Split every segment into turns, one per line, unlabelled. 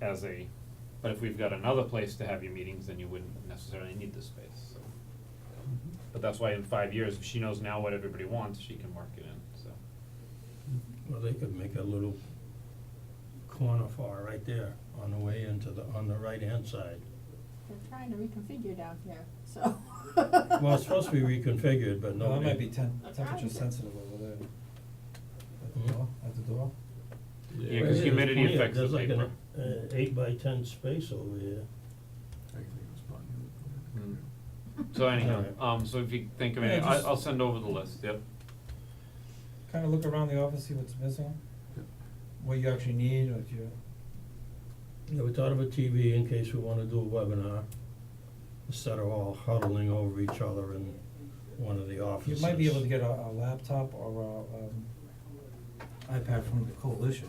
as a, but if we've got another place to have your meetings, then you wouldn't necessarily need this space, so.
Mm-hmm.
But that's why in five years, if she knows now what everybody wants, she can work it in, so.
Well, they could make a little corner for it right there on the way into the, on the right-hand side.
They're trying to reconfigure down here, so.
Well, it's supposed to be reconfigured, but
No, it
nobody.
might be tem-
That's
temperature
right.
sensitive over there. At the
Mm-hmm.
Hmm?
door, at the door.
Yeah, 'cause humidity
There's plenty of-
affects the
There's like
paper.
an, uh, eight by ten space over here.
Mm. So anyhow,
Alright.
um, so if you think of
Mm-hmm. Yeah,
any, I,
just-
I'll send over the list, yep.
Kinda look around the office, see what's missing, what you actually need, what you,
Yeah, we thought of a TV in case we wanna do a webinar, instead of all huddling over each other in one of the
you
offices.
might be able to get a, a laptop or a, um, iPad from the coalition.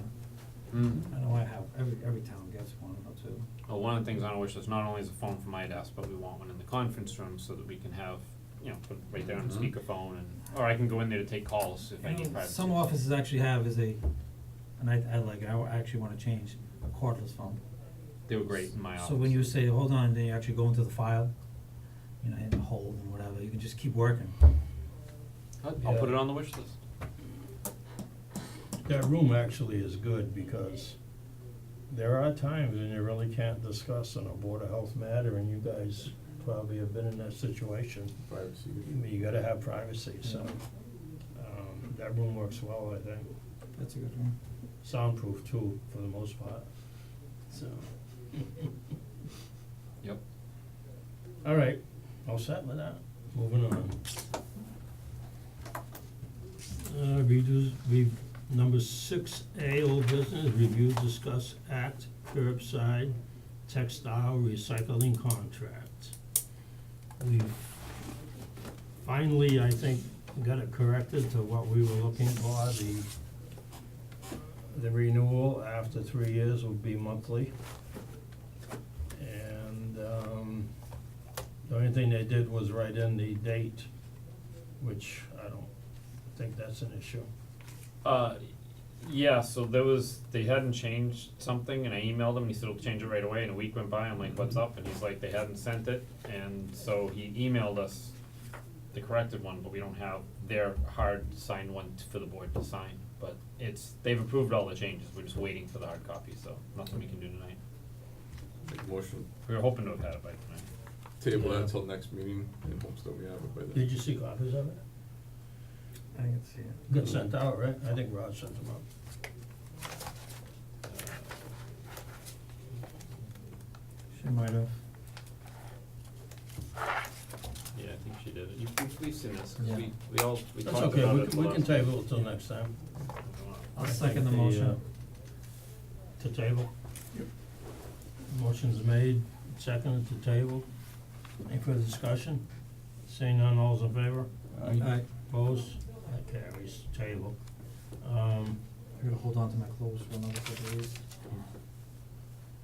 Mm.
I know I have, every, every town gets one or two.
Well, one of the things on our wish list not only is a phone from my desk, but we want one in the conference room so that we can have, you know, put right there on
Mhm.
speakerphone and, or I can go in there to take calls if I
You
need
know,
privacy.
Some offices actually have is a, and I, I like, it, I wa- actually wanna change a cordless phone.
They were great in my office.
So when you say, hold on, then you actually go into the file, you know, hit and hold and whatever, you can just keep working.
I'll, I'll put
Yeah.
it on the wish list.
That room actually is good because there are times when you really can't discuss on a Board of Health matter and you guys probably have been in that situation.
Privacy.
I mean, you gotta have privacy, so, um, that room works well, I think.
That's a good one.
Soundproof too, for the most part, so.
Yep.
All right, all set with that, moving on. Uh, redos, re, number six A, old business, review, discuss, act, curbside textile recycling contract. We've finally, I think, got it corrected to what we were looking for, the the renewal after three years will be monthly. And um the only thing they did was write in the date, which I don't think that's an issue.
Uh, yeah, so there was, they hadn't changed something and I emailed him, and he said, we'll change it right away, and a week went by, I'm like, what's up? And he's like, they hadn't sent it, and so he emailed us the corrected one, but we don't have their hard signed one t- for the board to sign, but it's, they've approved all the changes, we're just waiting for the hard copy, so nothing we can do tonight.
Make motion,
We were hoping to have had it by tonight.
table
Yeah.
that until next meeting, in hopes that we have it by then.
Did you see copies of it?
I can see it.
Got sent out, right? I think Rod sent them out.
She might have.
Yeah, I think she did it, you, we've seen this,
'cause we- Yeah.
we all, we
That's okay, we can, we can table it till next time.
I'll
I
second the
think uh,
motion.
To table? Motion's made, seconded to table. Any further discussion? Seeing none, all's in favor?
Alright,
Opposed? That carries, table. Um,
I gotta hold on to my clothes for another couple of days.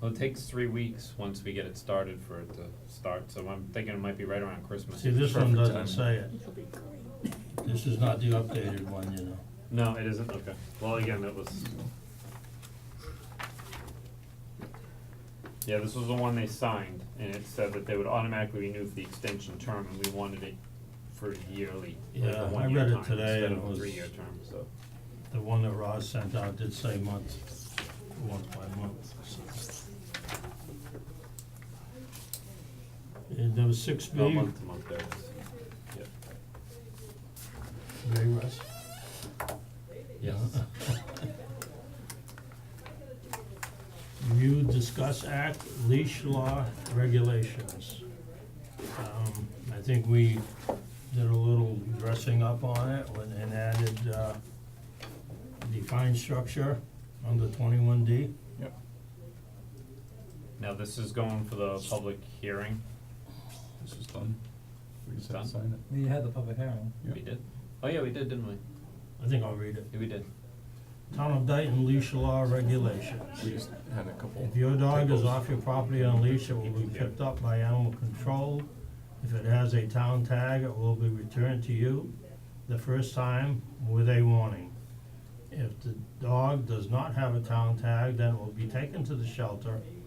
Well, it takes three weeks once we get it started for it to start, so I'm thinking it might be right around Christmas.
see, this one
Perfect
doesn't
timing.
say it.
It'll be great.
This is not the updated one, you know.
No, it isn't, okay. Well, again, that was. Yeah, this was the one they signed, and it said that they would automatically renew for the extension term, and we wanted it for yearly, like
Yeah,
a
I
one-year
read it
time
today,
instead
and
of
it
a
was-
three-year term, so.
The one that Ross sent out did say month, month by month. so. And number six B.
No, month to month there it is. Yep.
Very Russ?
Yes.
Review, discuss act, leash law regulations. Um, I think we did a little dressing up on it when- and added, uh, the fine structure under twenty-one D.
Now, this is going for the public hearing,
This is done. We
It's done?
sign it.
We had the public hearing.
Yep.
we did? Oh, yeah, we did, didn't we?
I think I'll read it.
Yeah, we did.
Town of Dayton leash law regulations.
We just had a couple.
If your dog is
typos.
off your property on a leash, it will be picked up by animal control. If it has a town tag, it will be returned to you the first time with a warning. If the dog does not have a town tag, then it will be taken to the shelter